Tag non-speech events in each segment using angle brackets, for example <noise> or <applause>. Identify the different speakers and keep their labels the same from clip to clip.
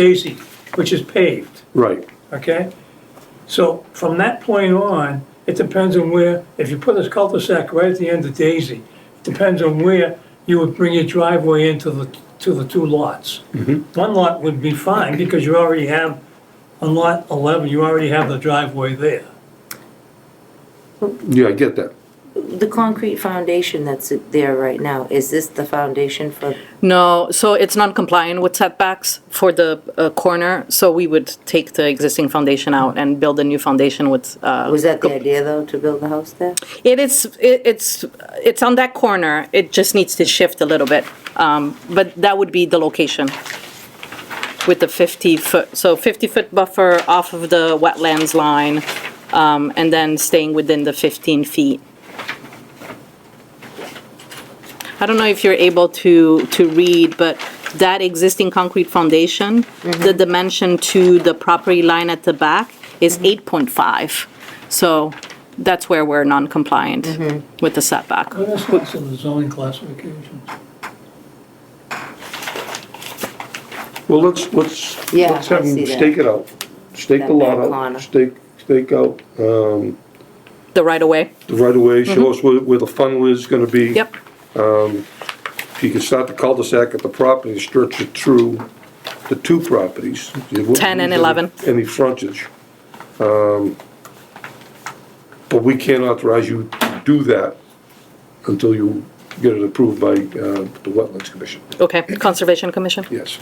Speaker 1: Daisy, which is paved,
Speaker 2: Right,
Speaker 1: okay? So from that point on, it depends on where, if you put this cul-de-sac right at the end of Daisy, it depends on where you would bring your driveway into the, to the two lots. One lot would be fine because you already have, on lot 11, you already have the driveway there.
Speaker 2: yeah, I get that.
Speaker 3: The concrete foundation that's there right now, is this the foundation for,
Speaker 4: No, so it's not compliant with setbacks for the uh, corner, so we would take the existing foundation out and build a new foundation with. uh,
Speaker 3: was that the idea though, to build the house there?
Speaker 4: It is, it- it's, it's on that corner, it just needs to shift a little bit, Um, but that would be the location with the 50-foot, so 50-foot buffer off of the wetlands line, um, and then staying within the 15 feet. I don't know if you're able to, to read, but that existing concrete foundation, the dimension to the property line at the back is 8.5. So that's where we're non-compliant with the setback.
Speaker 1: Well, that's not in the zoning classifications.
Speaker 2: Well, let's, let's,
Speaker 3: Yeah,
Speaker 2: let's have
Speaker 3: I see
Speaker 2: them
Speaker 3: that.
Speaker 2: stake it out. Stake the
Speaker 3: That
Speaker 2: lot
Speaker 3: back corner.
Speaker 2: out, stake, stake out
Speaker 4: The right-of-way?
Speaker 2: the right of way, show us where, where the funnel is gonna be.
Speaker 4: Mm-hmm. Yep,
Speaker 2: If you can start the cul-de-sac at the property, stretch it through the two properties. You wouldn't
Speaker 4: 10 and
Speaker 2: need any-
Speaker 4: 11.
Speaker 2: Any frontage. Um, But we can't authorize you to do that until you get it approved by, uh, the Wetlands Commission,
Speaker 4: okay, Conservation Commission.
Speaker 2: yes.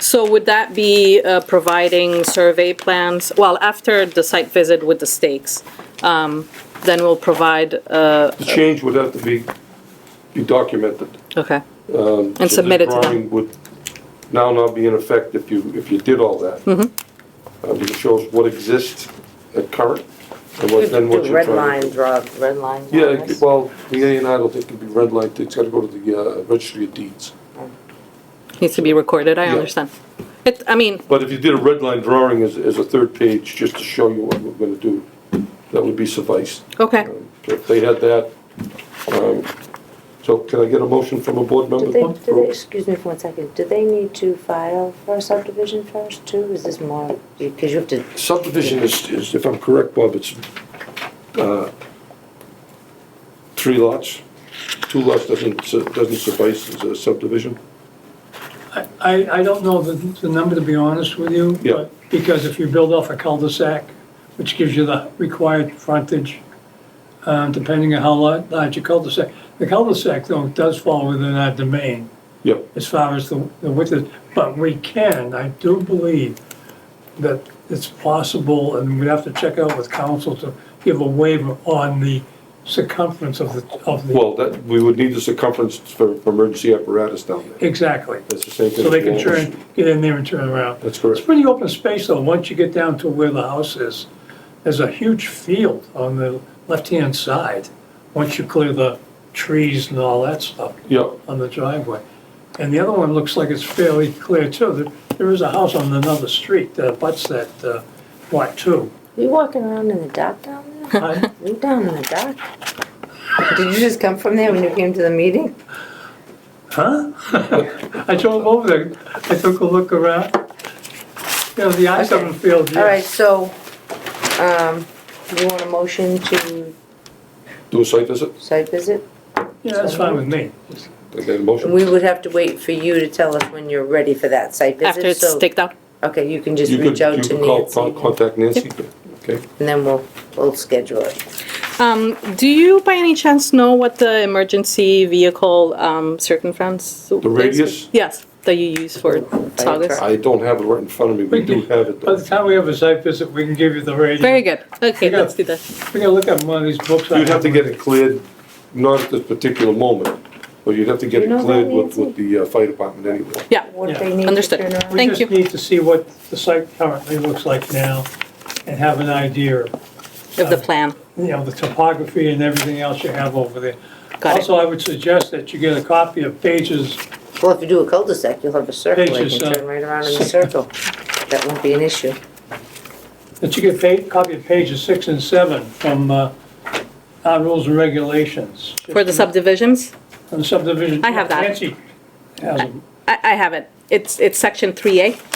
Speaker 4: So would that be uh, providing survey plans, well, after the site visit with the stakes? um, Then we'll provide, uh,
Speaker 2: The change would have to be, be documented.
Speaker 4: okay,
Speaker 2: Um, So
Speaker 4: and
Speaker 2: the
Speaker 4: submit it to them.
Speaker 2: drawing Would now not be in effect if you, if you did all that. Mm-hmm. It shows what exists at current, and what, then what
Speaker 3: The
Speaker 2: you're
Speaker 3: red
Speaker 2: trying
Speaker 3: line
Speaker 2: to.
Speaker 3: draw, red line.
Speaker 2: Yeah,
Speaker 3: drawings?
Speaker 2: it could- well, the A and I don't think it'd be red light, it's gotta go to the uh, registry of deeds.
Speaker 4: Needs to be recorded, I
Speaker 2: Yeah.
Speaker 4: understand. It, I mean,
Speaker 2: But if you did a red line drawing as, as a third page, just to show you what we're gonna do, that would be suffice.
Speaker 4: okay.
Speaker 2: Um, If they had that, um, so can I get a motion from a board member?
Speaker 3: Do they, do they, excuse me for one second, do they need to file for a subdivision first too? Is this more, because you have to,
Speaker 2: Subdivision is, is, if I'm correct, Bob, it's, uh, three lots. Two lots doesn't, su- doesn't suffice as a subdivision.
Speaker 1: I, I I don't know the, the number, to be honest with you.
Speaker 2: Yeah.
Speaker 1: but- Because if you build off a cul-de-sac, which gives you the required frontage, um, depending on how large, large your cul-de-sac. The cul-de-sac though does fall within our domain
Speaker 2: Yep,
Speaker 1: as far as the, the width is, but we can, I do believe that it's possible, and we'd have to check out with council to give a waiver on the circumference of the, of the,
Speaker 2: well, that, we would need the circumference for for emergency apparatus down there.
Speaker 1: exactly.
Speaker 2: That's the same thing.
Speaker 1: So they
Speaker 2: as
Speaker 1: can
Speaker 2: walls.
Speaker 1: turn, get in there and turn around.
Speaker 2: That's correct.
Speaker 1: It's pretty open space though, once you get down to where the house is. There's a huge field on the left-hand side, once you clear the trees and all that stuff
Speaker 2: Yep,
Speaker 1: on the driveway. And the other one looks like it's fairly clear too. There- There is a house on another street that abuts that uh, lot
Speaker 3: <laughs>
Speaker 1: too.
Speaker 3: you walking around in the dark down there?
Speaker 1: I-
Speaker 3: You down in the dark? Did you just come from there when you came to the meeting?
Speaker 1: Huh? I drove over there, I took a look around. You know, the I seven field,
Speaker 3: All right,
Speaker 1: yeah.
Speaker 3: so, um, you want a motion to
Speaker 2: do a site visit,
Speaker 3: site visit?
Speaker 1: Yeah, that's fine with me.
Speaker 2: and then motion.
Speaker 3: We would have to wait for you to tell us when you're ready for that site visit.
Speaker 4: After it's
Speaker 3: so-
Speaker 4: staked out?
Speaker 3: Okay, you can just
Speaker 2: You could,
Speaker 3: reach out
Speaker 2: you
Speaker 3: to
Speaker 2: could call,
Speaker 3: Nancy,
Speaker 2: con- contact Nancy, okay?
Speaker 3: and then we'll, we'll schedule it.
Speaker 4: Um, do you by any chance know what the emergency vehicle, um, circumference? The
Speaker 2: radius?
Speaker 4: Yes, that you use for sagas.
Speaker 3: truck.
Speaker 2: I don't have it right in front of me, we do have it
Speaker 1: By
Speaker 2: though.
Speaker 1: the time we have a site visit, we can give you the rating.
Speaker 4: Very good, okay,
Speaker 1: Yeah.
Speaker 4: let's do that.
Speaker 1: We can look at one of these books. I
Speaker 2: You'd have to get it cleared, not at this particular moment, but you'd have to get
Speaker 3: You
Speaker 2: it
Speaker 3: know that,
Speaker 2: cleared with,
Speaker 3: Nancy?
Speaker 2: with the uh, fire department anyway.
Speaker 4: Yeah,
Speaker 3: What
Speaker 1: Yeah.
Speaker 3: they need to
Speaker 4: Understood.
Speaker 3: turn around.
Speaker 4: Thank you.
Speaker 1: We just need to see what the site currently looks like now and have an idea,
Speaker 4: of the plan,
Speaker 1: you know, the topography and everything else you have over there.
Speaker 4: Got it.
Speaker 1: Also, I would suggest that you get a copy of pages,
Speaker 3: Well, if you do a cul-de-sac, you'll have a circle, you
Speaker 1: Pages,
Speaker 3: can
Speaker 1: uh,
Speaker 3: turn right around in the circle. That won't be an issue.
Speaker 1: that you get a copy of pages six and seven from uh, our rules and regulations.
Speaker 4: for the subdivisions?
Speaker 1: From the subdivision.
Speaker 4: I have that.
Speaker 1: Nancy has them.
Speaker 4: I, I have it. it's, it's section 3A.